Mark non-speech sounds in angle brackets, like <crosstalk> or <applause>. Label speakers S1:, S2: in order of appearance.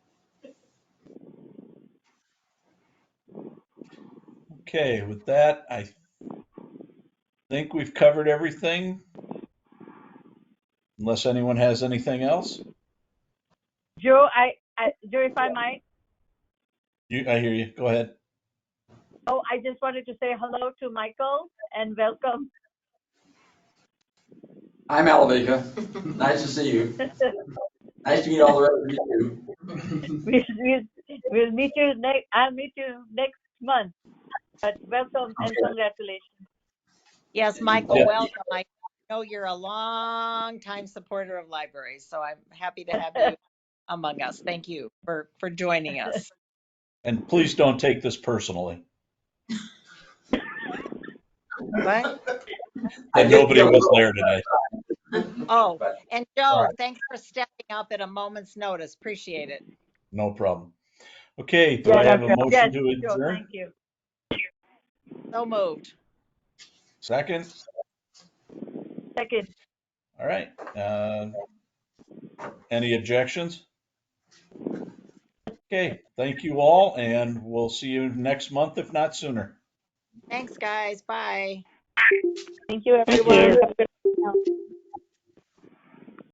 S1: Okay, with that, I think we've covered everything. Unless anyone has anything else?
S2: Joe, I, I, Joe, if I might,
S1: You, I hear you. Go ahead.
S2: oh, I just wanted to say hello to Michael and welcome. <laughs>
S3: I'm Alavika. Nice to see you. Nice to meet all the rest of you.
S2: We'll, we'll, we'll meet you next, I'll meet you next month. But welcome and
S3: Okay.
S2: congratulations.
S4: Yes,
S1: Yeah.
S4: Michael, welcome. I know you're a long time supporter of libraries, so I'm happy to have
S3: <laughs>
S4: you among us. Thank you for, for joining us.
S1: And please don't take this personally.
S4: What?
S3: I
S1: And
S3: did
S1: nobody
S3: feel a
S1: was
S3: little-
S1: there today.
S4: Oh,
S3: But-
S4: and
S3: all
S4: Joe,
S3: right.
S4: thanks for stepping up at a moment's notice. Appreciate it.
S1: No problem. Okay, do I have a motion
S2: Yes,
S1: to
S2: Joe,
S1: adjourn?
S2: thank you.
S4: So moved.
S1: Second?
S2: Second,
S1: All right. Uh, Any objections? Okay, thank you all, and we'll see you next month, if not sooner.
S4: Thanks, guys. Bye.
S2: thank you, everyone.